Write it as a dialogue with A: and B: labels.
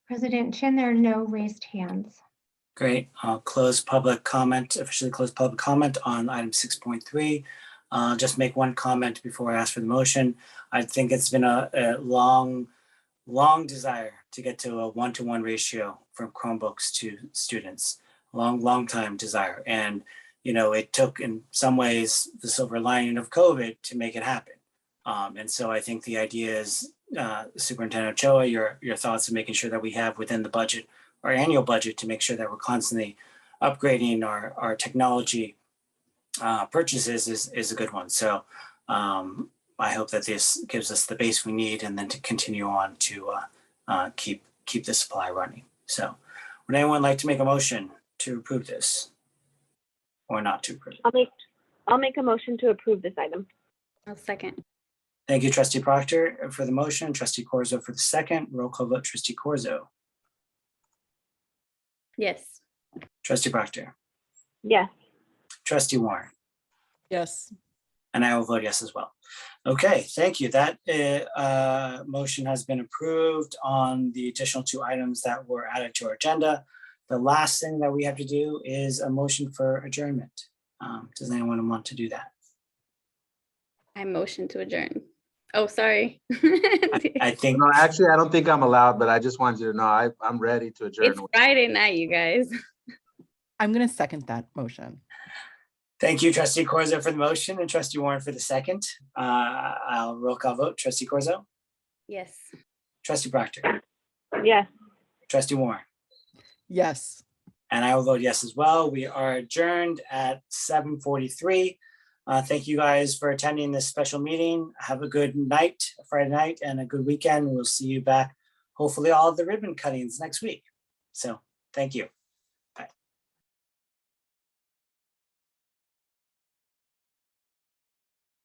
A: President Chin, there are no raised hands.
B: Great. I'll close public comment, officially close public comment on item six point three. Uh, just make one comment before I ask for the motion. I think it's been a, a long, long desire to get to a one-to-one ratio from Chromebooks to students. Long, long time desire. And, you know, it took in some ways the silver lining of COVID to make it happen. Um, and so I think the idea is, uh, Superintendent Ochoa, your, your thoughts of making sure that we have within the budget our annual budget to make sure that we're constantly upgrading our, our technology uh, purchases is, is a good one. So um, I hope that this gives us the base we need and then to continue on to uh, uh, keep, keep the supply running. So would anyone like to make a motion to approve this? Or not to approve? it?
C: I'll make, I'll make a motion to approve this item.
D: I'll second.
B: Thank you, trustee Proctor for the motion, trustee Corzo for the second, roll call vote, trustee Corzo,
D: Yes.
B: trustee Proctor,
C: Yes,
B: trustee Warren.
E: Yes,
B: And I will vote yes as well. Okay, thank you. That uh, uh, motion has been approved on the additional two items that were added to our agenda. The last thing that we have to do is a motion for adjournment. Um, Does anyone want to do that?
D: I motion to adjourn. Oh, sorry.
B: I
D: It's
B: think,
F: No, actually, I don't think I'm allowed, but I just wanted you to know, I, I'm ready to adjourn.
D: Friday night, you guys.
E: I'm going to second that motion.
B: thank you, trustee Corzo for the motion and trustee Warren for the second. Uh, I'll roll call vote. Trustee Corzo,
D: Yes.
B: trustee Proctor,
C: yes.
B: trustee Warren.
E: Yes.
B: And I will vote yes as well. We are adjourned at seven forty-three. Uh, thank you guys for attending this special meeting. Have a good night, Friday night, and a good weekend. We'll see you back, hopefully all of the ribbon cuttings next week. So, thank you.